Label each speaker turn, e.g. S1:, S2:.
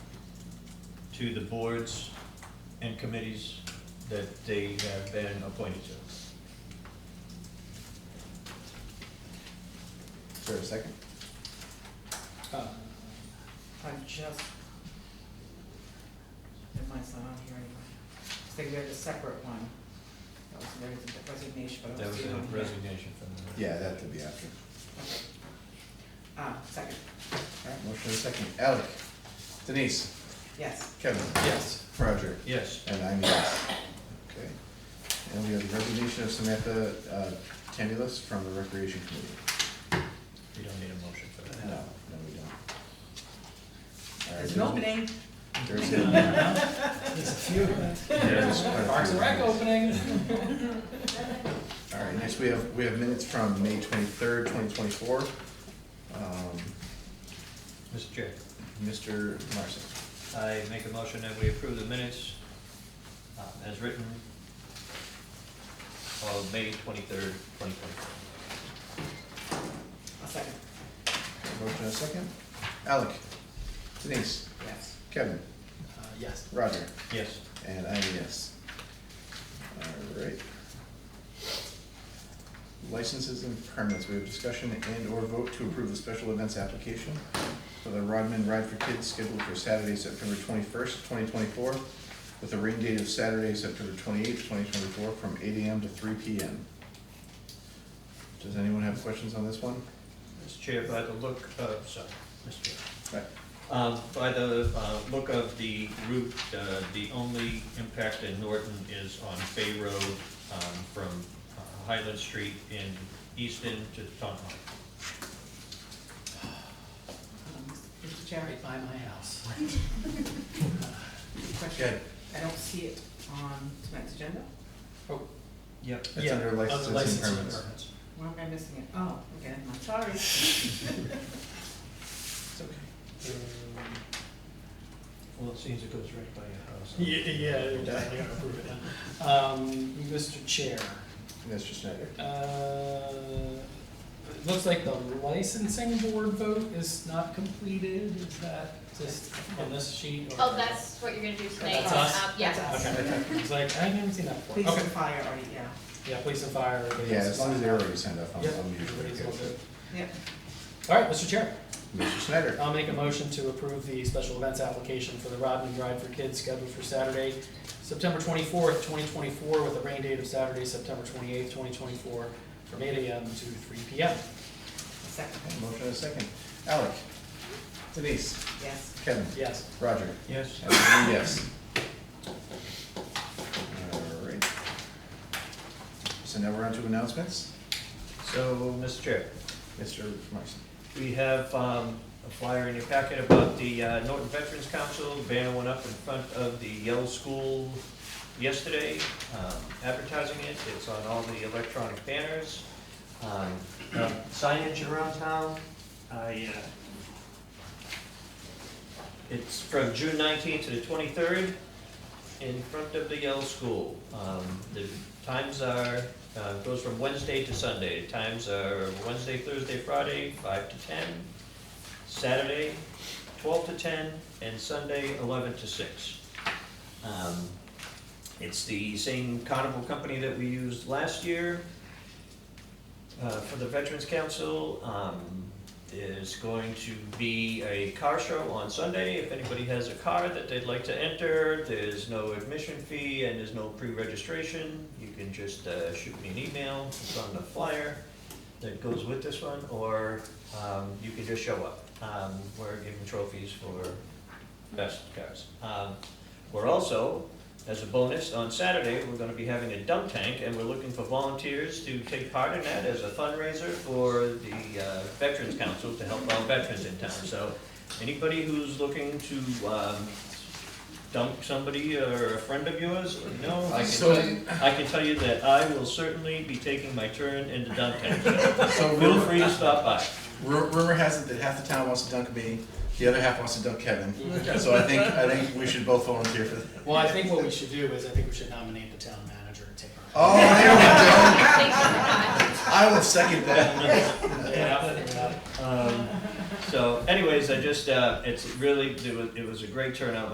S1: to the boards and committees that they have been appointed to.
S2: Is there a second?
S3: Oh.
S4: Uh, I just, it might's not on here anymore. I think we had a separate one. That was there was a resignation, but I
S1: That
S4: don't
S1: was
S4: see it
S1: a
S4: on here.
S1: resignation from the.
S2: Yeah, that could be after.
S4: Okay. Uh, second,
S2: All right, motion and second. Alec, Denise,
S4: yes.
S2: Kevin,
S1: Yes.
S2: Roger,
S1: Yes,
S2: and I'm yes. Okay. And we have the resignation of Samantha uh, Candelas from the Recreation Committee.
S1: we don't need a motion for that.
S2: No, no, we don't. All right,
S4: There's an opening.
S2: There's none.
S3: There's a few.
S2: There's quite a
S3: Parks and
S2: few.
S3: Rec opening.
S2: All right, next we have, we have minutes from May twenty-third, twenty twenty-four. Um,
S1: Mr. Chair,
S2: Mr. Marson,
S1: I make a motion that we approve the minutes uh, as written of May twenty-third, twenty twenty-four.
S4: A second,
S2: motion and second. Alec, Denise,
S4: yes.
S2: Kevin,
S3: Uh, Yes.
S2: Roger,
S1: Yes,
S2: and I'm a yes. All right. Licenses and permits, we have discussion and or vote to approve the special events application for the Rodman Ride for Kids scheduled for Saturday, September twenty-first, twenty twenty-four, with a rain date of Saturday, September twenty-eighth, twenty twenty-four, from eight AM to three PM. Does anyone have questions on this one?
S1: Mr. Chair, by the look, uh, sorry, Mr. Chair.
S2: Right.
S1: Um, By the uh, look of the route, uh, the only impact in Norton is on Bay Road um, from uh, Highland Street in Easton to Taunton.
S4: Um, Mr. Chair,
S3: Right by my house. Uh,
S4: question.
S2: Okay,
S4: I don't see it on tonight's agenda.
S3: Oh,
S1: Yep.
S2: It's under licenses and permits.
S4: Why am I missing it? Oh, okay, I'm sorry.
S3: It's okay. Um,
S1: Well, it seems it goes right by your house.
S3: Yeah, yeah, I gotta approve it now. Um, Mr. Chair,
S2: Mr. Snyder,
S3: uh, it looks like the licensing board vote is not completed. Is that just on this sheet? or-
S5: Oh, that's what you're gonna do tonight?
S3: That's us?
S5: Um, Yeah.
S4: That's us.
S3: Okay, it's like, I haven't seen that
S4: Police
S3: before. Okay,
S4: and fire already, yeah.
S3: yeah, police and fire.
S2: yeah, as long as they
S3: everybody's-
S2: already signed up, I'm,
S3: Yep,
S2: I'm usually
S3: everybody's all
S2: good.
S3: good.
S4: Yep.
S3: All right, Mr. Chair.
S2: Mr. Snyder,
S3: I'll make a motion to approve the special events application for the Rodman Ride for Kids scheduled for Saturday, September twenty-fourth, twenty twenty-four, with a rain date of Saturday, September twenty-eighth, twenty twenty-four, from eight AM to three PM.
S4: Second,
S2: motion and a second. Alec, Denise,
S4: yes.
S2: Kevin,
S3: Yes.
S2: Roger,
S1: Yes,
S2: and I'm a yes. All right. So now we're on to announcements.
S1: so, Mr. Chair,
S2: Mr. Marson,
S1: we have um, a flyer in your packet about the uh, Norton Veterans Council. Banner went up in front of the Yale School yesterday, um, advertising it. It's on all the electronic banners. um, uh, Signage around town. I, uh, It's from June nineteenth to the twenty-third in front of the Yale School. Um, The times are, uh, goes from Wednesday to Sunday. Times are Wednesday, Thursday, Friday, five to ten, Saturday, twelve to ten, and Sunday, eleven to six. Um, It's the same carnival company that we used last year uh, for the Veterans Council. Um, There's going to be a car show on Sunday. If anybody has a car that they'd like to enter, there's no admission fee and there's no pre-registration. You can just uh, shoot me an email, it's on the flyer that goes with this one, or um, you can just show up. Um, We're giving trophies for best cars. Um, We're also, as a bonus, on Saturday, we're gonna be having a dump tank, and we're looking for volunteers to take part in that as a fundraiser for the uh, Veterans Council to help out veterans in town. So anybody who's looking to um, dump somebody or a friend of yours, you know, I can, tell- I can tell you that I will certainly be taking my turn in the dump tank. So
S2: so
S1: Feel
S2: rumor,
S1: free to stop by.
S2: ru- rumor has it that half the town wants to dunk me, the other half wants to dunk Kevin. So I think, I think we should both volunteer for that.
S3: Well, I think what we should do is, I think we should nominate the town manager and take her.
S2: Oh, there we go.
S5: Thanks for that.
S2: I will second that.
S3: Yeah.
S1: Um, So anyways, I just, uh, it's really, it was, it was a great turnout